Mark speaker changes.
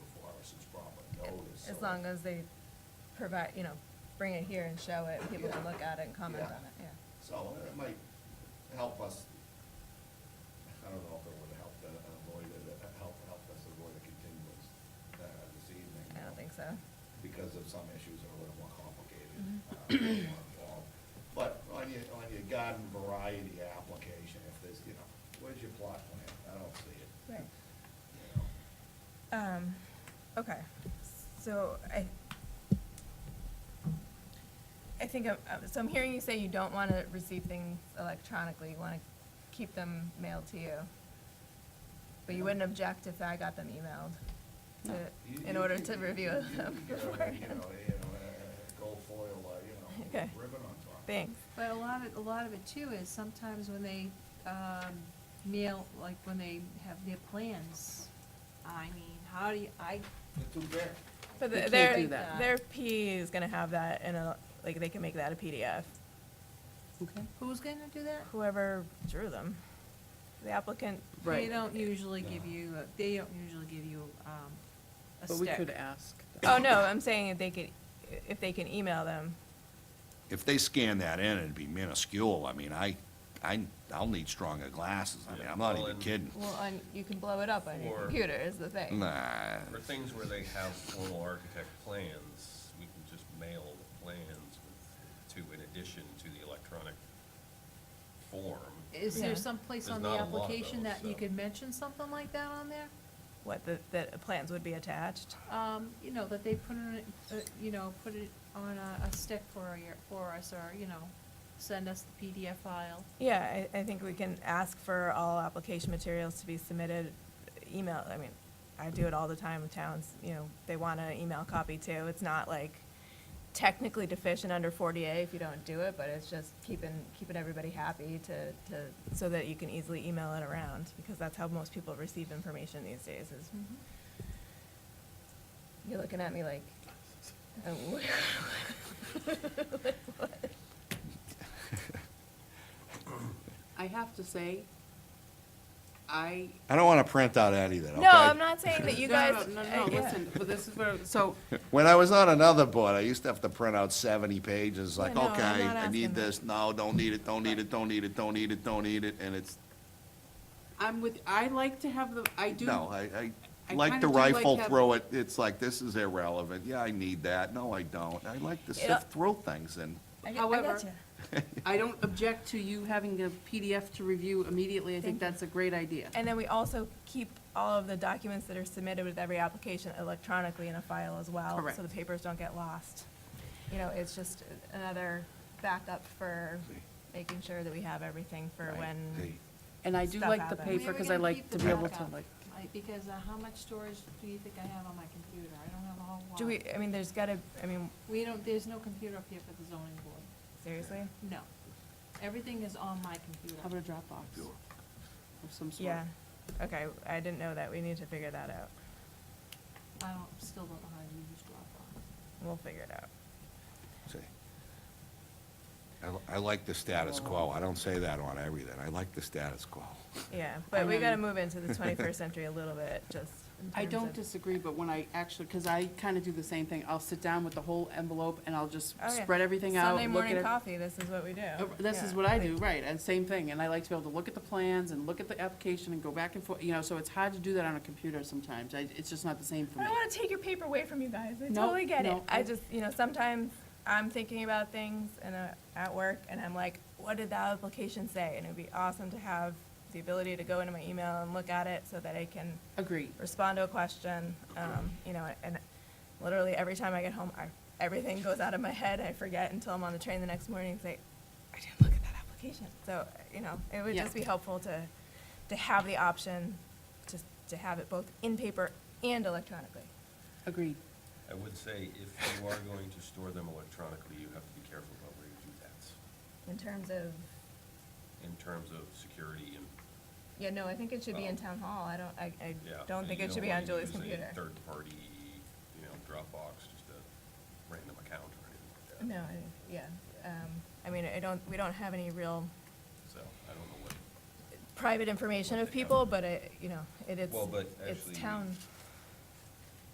Speaker 1: as long as they provide, you know, bring it here and show it, people can
Speaker 2: Yeah.
Speaker 1: look at it and comment
Speaker 2: Yeah.
Speaker 1: on it, yeah.
Speaker 2: So it might help us, I don't know if it would help uh, avoid, it, uh, help, help us avoid a continuance uh, this evening. um,
Speaker 1: I don't think so.
Speaker 2: Because of some issues are a little more complicated.
Speaker 1: Mhm.
Speaker 2: uh, a little more involved. But on your, on your garden variety application, if there's, you know, where's your plot plan? I don't see it.
Speaker 1: Right.
Speaker 2: You know,
Speaker 1: Um, okay, so I, I think, I'm- I'm- so I'm hearing you say you don't want to receive things electronically, you want to keep them mailed to you. But you wouldn't object if I got them emailed
Speaker 2: You-
Speaker 1: to, in
Speaker 2: you-
Speaker 1: order
Speaker 2: you-
Speaker 1: to
Speaker 2: you-
Speaker 1: review
Speaker 2: you- you
Speaker 1: them
Speaker 2: get a, You
Speaker 1: beforehand.
Speaker 2: know, you know, a- a gold foil, uh, you know,
Speaker 1: Okay.
Speaker 2: ribbon on top.
Speaker 1: Thanks.
Speaker 3: But a lot of, a lot of it too is sometimes when they, um, mail, like when they have their plans, I mean, how do you, I,
Speaker 2: They're too big.
Speaker 1: But
Speaker 4: We
Speaker 1: the-
Speaker 4: can't
Speaker 1: their,
Speaker 4: do that.
Speaker 1: their PE is gonna have that in a, like, they can make that a PDF,
Speaker 4: Okay.
Speaker 3: who's gonna do that?
Speaker 1: whoever drew them. The applicant,
Speaker 3: They
Speaker 4: Right.
Speaker 3: don't usually give you, a- they don't usually give you, um, a
Speaker 4: But
Speaker 3: stick.
Speaker 4: we could ask.
Speaker 1: oh, no, I'm saying if they could, if they can email them,
Speaker 5: if they scan that in, it'd be minuscule. I mean, I, I, I'll need stronger glasses. I mean, I'm not
Speaker 6: Yeah, well,
Speaker 5: even
Speaker 6: and-
Speaker 5: kidding.
Speaker 1: Well, on, you can blow it up on your
Speaker 6: Or-
Speaker 1: computer is the thing.
Speaker 5: Nah.
Speaker 6: For things where they have formal architect plans, we can just mail the plans with, to, in addition to the electronic form.
Speaker 3: Is
Speaker 1: Yeah.
Speaker 3: there some place
Speaker 6: There's
Speaker 3: on the
Speaker 6: not a lot of
Speaker 3: application
Speaker 6: those,
Speaker 3: that you
Speaker 6: so.
Speaker 3: could mention something like that on there?
Speaker 1: What, the, the plans would be attached?
Speaker 3: Um, you know, that they put it, uh, you know, put it on a, a stick for your, for us, or, you know, send us the PDF file.
Speaker 1: Yeah, I, I think we can ask for all application materials to be submitted, email, I mean, I do it all the time with towns, you know, they want an email copy too. It's not like technically deficient under 40A if you don't do it, but it's just keeping, keeping everybody happy to, to, so that you can easily email it around, because that's how most people receive information these days is, you're looking at me like, uh, what? Like what?
Speaker 4: I have to say, I.
Speaker 5: I don't want to print out any of that, okay?
Speaker 1: No, I'm not saying that you
Speaker 4: No, no,
Speaker 1: guys.
Speaker 4: No,
Speaker 1: uh,
Speaker 4: no, no,
Speaker 1: yeah.
Speaker 4: listen, but this is where, so,
Speaker 5: When I was on another board, I used to have to print out seventy pages, like,
Speaker 1: no, I'm
Speaker 5: okay,
Speaker 1: not
Speaker 5: I
Speaker 1: asking
Speaker 5: need
Speaker 1: that.
Speaker 5: this, no, don't need it, don't need it, don't need it, don't need it, don't need it, and it's,
Speaker 4: I'm with, I like to have the, I do.
Speaker 5: no, I, I
Speaker 4: I
Speaker 5: like to
Speaker 4: kinda do like
Speaker 5: rifle
Speaker 4: have-
Speaker 5: through it. It's like, this is irrelevant. Yeah, I need that. No, I don't. I like to
Speaker 1: Yeah.
Speaker 5: sift through things and,
Speaker 1: I- I
Speaker 4: However,
Speaker 1: gotcha.
Speaker 4: I don't object to you having a PDF to review immediately. I
Speaker 1: Thank you.
Speaker 4: think that's a great idea.
Speaker 1: And then we also keep all of the documents that are submitted with every application electronically in a file as well.
Speaker 4: Correct.
Speaker 1: So the papers don't get lost. You know, it's just another backup for making sure that we have everything for
Speaker 5: Right.
Speaker 1: when.
Speaker 5: Hey.
Speaker 4: And I do
Speaker 1: Stuff
Speaker 4: like the
Speaker 1: happens.
Speaker 4: paper because I like to be able to like.
Speaker 3: I, because uh, how much storage do you think I have on my computer? I don't have a whole lot.
Speaker 1: Do we, I mean, there's gotta, I mean,
Speaker 3: We don't, there's no computer up here for the zoning board.
Speaker 1: seriously?
Speaker 3: No. Everything is on my computer.
Speaker 4: How about a Dropbox of some sort?
Speaker 1: Yeah, okay, I didn't know that. We need to figure that out.
Speaker 3: I don't, still don't know how to use Dropbox.
Speaker 1: We'll figure it out.
Speaker 5: see. I, I like the status quo. I don't say that on everything. I like the status quo.
Speaker 1: Yeah, but we gotta
Speaker 4: Um,
Speaker 1: move into the twenty-first century a little bit, just in
Speaker 4: I
Speaker 1: terms
Speaker 4: don't
Speaker 1: of-
Speaker 4: disagree, but when I actually, because I kind of do the same thing. I'll sit down with the whole envelope and I'll just
Speaker 1: Oh, yeah.
Speaker 4: spread everything out.
Speaker 1: Sunday
Speaker 4: look at
Speaker 1: morning
Speaker 4: it.
Speaker 1: coffee, this is what we do.
Speaker 4: Uh, This is
Speaker 1: Yeah.
Speaker 4: what I do, right, and same thing, and I like to be able to look at the plans and look at the application and go back and forth, you know, so it's hard to do that on a computer sometimes, I, it's just not the same for
Speaker 1: I
Speaker 4: me.
Speaker 1: don't want to take your paper away from you guys. I
Speaker 4: No,
Speaker 1: totally get it.
Speaker 4: no.
Speaker 1: I just, you know, sometimes I'm thinking about things and uh, at work, and I'm like, what did that application say? And it'd be awesome to have the ability to go into my email and look at it so that I can
Speaker 4: Agreed,
Speaker 1: respond to a question. Um, you know, and literally every time I get home, I, everything goes out of my head. I forget until I'm on the train the next morning and say, I didn't look at that application. So, you know, it would
Speaker 4: Yeah.
Speaker 1: just be helpful to, to have the option to, to have it both in paper and electronically.
Speaker 4: agreed,
Speaker 6: I would say if you are going to store them electronically, you have to be careful about where you do that
Speaker 1: In terms of,
Speaker 6: in terms of security and,
Speaker 1: yeah, no, I think it should be in town hall. I don't, I, I
Speaker 6: yeah.
Speaker 1: don't
Speaker 6: and
Speaker 1: think
Speaker 6: you
Speaker 1: it should be on
Speaker 6: wanna
Speaker 1: Julie's
Speaker 6: use a
Speaker 1: computer.
Speaker 6: Third-party, you know, Dropbox, just a random account or anything like that.
Speaker 1: No, I- yeah, um, I mean, I don't, we don't have any real
Speaker 6: So I don't know what,
Speaker 1: private information of people, but it, you know, it is,
Speaker 6: Well, but
Speaker 1: it's
Speaker 6: actually-
Speaker 1: town